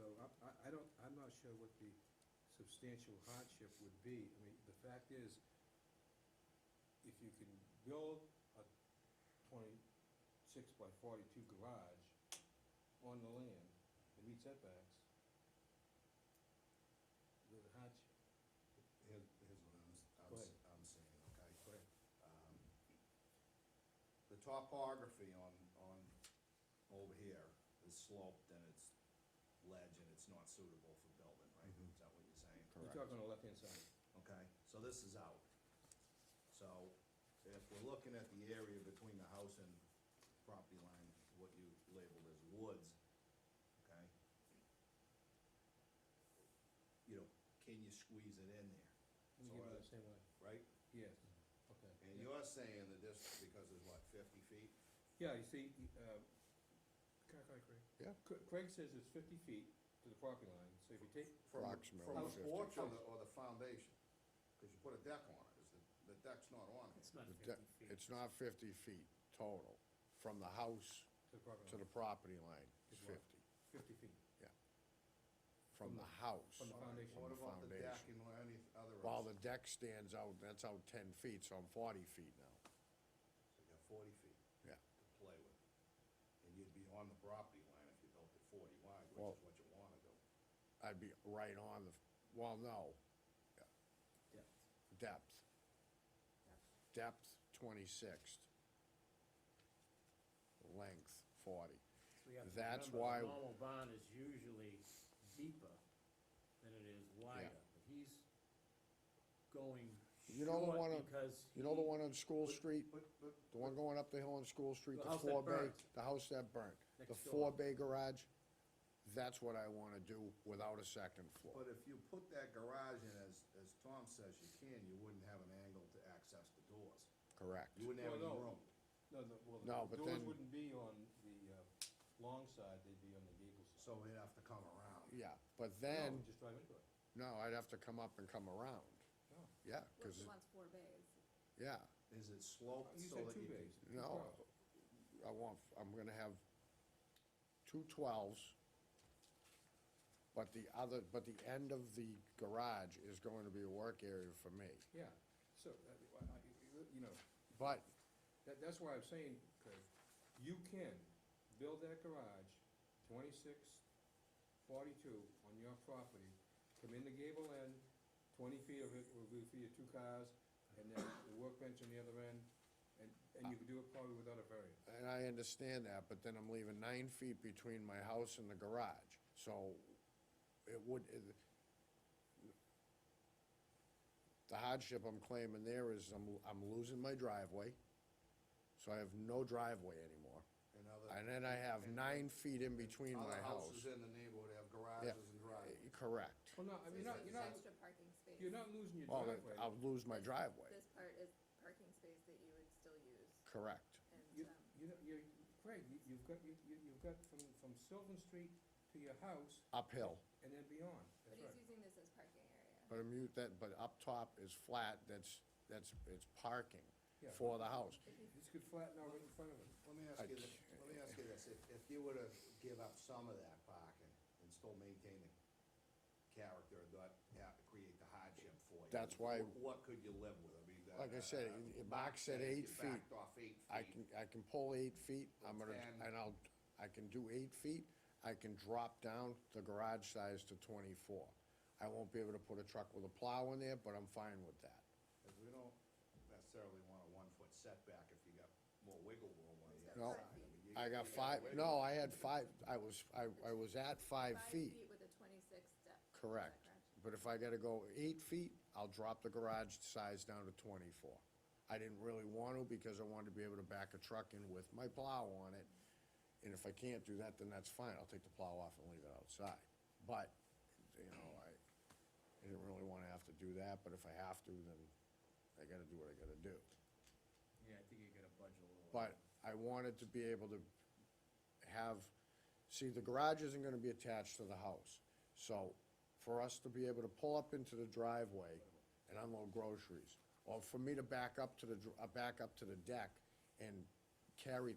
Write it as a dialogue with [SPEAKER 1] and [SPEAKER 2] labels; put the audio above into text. [SPEAKER 1] I don't, I'm not sure what the substantial hardship would be. I mean, the fact is, if you can build a twenty-six by forty-two garage on the land and meet setbacks, there's a hardship.
[SPEAKER 2] Here's, here's what I'm, s- I'm,
[SPEAKER 1] Go
[SPEAKER 2] s- I'm saying, okay?
[SPEAKER 1] Go ahead.
[SPEAKER 2] Um, The topography on, on, over here is sloped and it's ledge and it's not suitable for building, right?
[SPEAKER 3] Mhm.
[SPEAKER 2] Is that what you're saying?
[SPEAKER 1] You're talking on the left-hand side.
[SPEAKER 2] Okay, so this is out. So if we're looking at the area between the house and property line, what you labeled as woods, okay? You know, can you squeeze it in there,
[SPEAKER 1] We give
[SPEAKER 2] So
[SPEAKER 1] it
[SPEAKER 2] are they-
[SPEAKER 1] the same way.
[SPEAKER 2] right?
[SPEAKER 1] Yes, okay.
[SPEAKER 2] And
[SPEAKER 1] Yeah.
[SPEAKER 2] you're saying that this, because it's what, fifty feet?
[SPEAKER 1] Yeah, you see, uh, can I call you Craig?
[SPEAKER 3] Yeah.
[SPEAKER 1] Cra- Craig says it's fifty feet to the property line, so if you take,
[SPEAKER 2] From the-
[SPEAKER 3] Approximately
[SPEAKER 2] From the
[SPEAKER 3] 50.
[SPEAKER 2] porch or the, or the foundation? Cause you put a deck on it, is the, the deck's not on it.
[SPEAKER 4] It's not
[SPEAKER 3] The
[SPEAKER 4] fifty
[SPEAKER 3] de-
[SPEAKER 4] feet.
[SPEAKER 3] It's not fifty feet total, from the house
[SPEAKER 1] to the property line,
[SPEAKER 3] to the property line is
[SPEAKER 1] Is what?
[SPEAKER 3] fifty,
[SPEAKER 1] fifty feet. From
[SPEAKER 3] from the
[SPEAKER 1] the-
[SPEAKER 3] house.
[SPEAKER 1] from the foundation.
[SPEAKER 2] What
[SPEAKER 3] From the
[SPEAKER 2] about the deck
[SPEAKER 3] foundation.
[SPEAKER 2] and any other?
[SPEAKER 3] While the deck stands out, that's out ten feet, so I'm forty feet now.
[SPEAKER 2] So you got forty feet.
[SPEAKER 3] Yeah.
[SPEAKER 2] To play with. And you'd be on the property line if you built it forty wide,
[SPEAKER 3] Well-
[SPEAKER 2] which is what you wanna do.
[SPEAKER 3] I'd be right on the, well, no.
[SPEAKER 1] Yeah.
[SPEAKER 3] Depth. Depth twenty-six. Length forty.
[SPEAKER 4] So you have to
[SPEAKER 3] that's
[SPEAKER 4] remember,
[SPEAKER 3] why-
[SPEAKER 4] a Normal barn is usually deeper than it is wider, but he's going
[SPEAKER 3] You know the one on-
[SPEAKER 4] short because.
[SPEAKER 3] You know the
[SPEAKER 4] he-
[SPEAKER 3] one on School
[SPEAKER 2] But-
[SPEAKER 3] Street,
[SPEAKER 2] But, but,
[SPEAKER 3] the one going up the hill on School Street,
[SPEAKER 4] The
[SPEAKER 3] the
[SPEAKER 4] house that
[SPEAKER 3] four bay,
[SPEAKER 4] burnt.
[SPEAKER 3] the house that burnt? The
[SPEAKER 4] Next door.
[SPEAKER 3] four bay garage? That's what I wanna do without a second floor.
[SPEAKER 2] but if you put that garage in as, as Tom says you can, you wouldn't have an angle to access the doors.
[SPEAKER 3] Correct.
[SPEAKER 2] You wouldn't have any
[SPEAKER 1] Well, no.
[SPEAKER 2] room.
[SPEAKER 1] No, no,
[SPEAKER 3] No,
[SPEAKER 1] well, the
[SPEAKER 3] but
[SPEAKER 1] doors
[SPEAKER 3] then-
[SPEAKER 1] wouldn't be on the, uh, long side, they'd be on the gable side.
[SPEAKER 2] So they'd have to come around.
[SPEAKER 3] Yeah, but
[SPEAKER 1] No,
[SPEAKER 3] then,
[SPEAKER 1] just drive into it.
[SPEAKER 3] no, I'd have to come up and come around.
[SPEAKER 1] No.
[SPEAKER 3] Yeah,
[SPEAKER 5] Well,
[SPEAKER 3] cause,
[SPEAKER 5] he
[SPEAKER 3] it-
[SPEAKER 5] wants four bays.
[SPEAKER 3] yeah,
[SPEAKER 2] Is it sloped
[SPEAKER 1] You
[SPEAKER 2] so
[SPEAKER 1] said
[SPEAKER 2] that
[SPEAKER 1] two
[SPEAKER 2] you
[SPEAKER 1] bays.
[SPEAKER 2] can?
[SPEAKER 1] two
[SPEAKER 3] no,
[SPEAKER 1] cars.
[SPEAKER 3] I want, I'm gonna have two twelves. But the other, but the end of the garage is going to be a work area for me.
[SPEAKER 1] Yeah, so, uh, I- I- you know,
[SPEAKER 3] But
[SPEAKER 1] That, that's why I'm saying, Craig, you can build that garage, 26, 42 on your property, come in the gable end, twenty feet of it will be for your two cars, and then the workbench on the other end, and, and you can do it probably without a variance.
[SPEAKER 3] And I understand that, but then I'm leaving nine feet between my house and the garage, so it would, it- the hardship I'm claiming there is I'm, I'm losing my driveway, so I have no driveway anymore.
[SPEAKER 2] and other-
[SPEAKER 3] And then I have
[SPEAKER 2] and-
[SPEAKER 3] nine feet in between my
[SPEAKER 2] Other
[SPEAKER 3] house.
[SPEAKER 2] houses in the neighborhood have garages and driveways.
[SPEAKER 3] Eh, Correct.
[SPEAKER 1] Well, no, I mean, you're not,
[SPEAKER 5] So
[SPEAKER 1] you're not,
[SPEAKER 5] Extra parking space.
[SPEAKER 1] you're not losing your
[SPEAKER 3] Well, then
[SPEAKER 1] driveway.
[SPEAKER 3] I'll lose my driveway,
[SPEAKER 5] This part is parking space that you would still use
[SPEAKER 3] correct.
[SPEAKER 5] and,
[SPEAKER 1] You,
[SPEAKER 5] um,
[SPEAKER 1] you, know, you, Craig, you- you've got, you, you- you've got from, from Sylvan Street to your house
[SPEAKER 3] Uphill,
[SPEAKER 1] and then beyond,
[SPEAKER 5] but
[SPEAKER 1] that's
[SPEAKER 5] he's
[SPEAKER 1] right.
[SPEAKER 5] using this as parking area.
[SPEAKER 3] but I'm, u- that, but up top is flat, that's, that's, it's parking
[SPEAKER 1] Yeah.
[SPEAKER 3] for the house.
[SPEAKER 1] This could flatten out right in front of it.
[SPEAKER 2] Let me ask
[SPEAKER 3] I
[SPEAKER 2] you, thi- let me ask you this, if, if you were to give up some of that parking and still maintain the character, not have to create the hardship for you.
[SPEAKER 3] That's why-
[SPEAKER 2] wh- What could you live with, I mean, that.
[SPEAKER 3] Like I said,
[SPEAKER 2] Uh,
[SPEAKER 3] i- i- Mark said
[SPEAKER 2] if you
[SPEAKER 3] eight feet.
[SPEAKER 2] Backed off eight
[SPEAKER 3] I
[SPEAKER 2] feet,
[SPEAKER 3] can, I can pull eight feet, I'm gonna,
[SPEAKER 2] Ten.
[SPEAKER 3] and I'll, I can do eight feet, I can drop down the garage size to twenty-four. I won't be able to put a truck with a plow in there, but I'm fine with that.
[SPEAKER 2] 'cause we don't necessarily want a one-foot setback if you got more wiggle room on the
[SPEAKER 5] He's got
[SPEAKER 3] No.
[SPEAKER 2] other side. mean, you-
[SPEAKER 3] I
[SPEAKER 2] you
[SPEAKER 3] got five,
[SPEAKER 2] wiggle
[SPEAKER 3] no,
[SPEAKER 2] room.
[SPEAKER 3] I had five, I was, I, I was at five feet,
[SPEAKER 5] with a twenty-six step. is that
[SPEAKER 3] correct. But if I gotta go eight feet, I'll drop the garage size down to twenty-four. I didn't really want to because I wanted to be able to back a truck in with my plow on it. And if I can't do that, then that's fine. I'll take the plow off and leave it outside. But, you know, I, I didn't really wanna have to do that, but if I have to, then I gotta do what I gotta do.
[SPEAKER 4] Yeah, I think you gotta budge a little.
[SPEAKER 3] But I wanted to be able to have, see, the garage isn't gonna be attached to the house. So for us to be able to pull up into the driveway and unload groceries, or for me to back up to the, dr- uh, back up to the deck and carry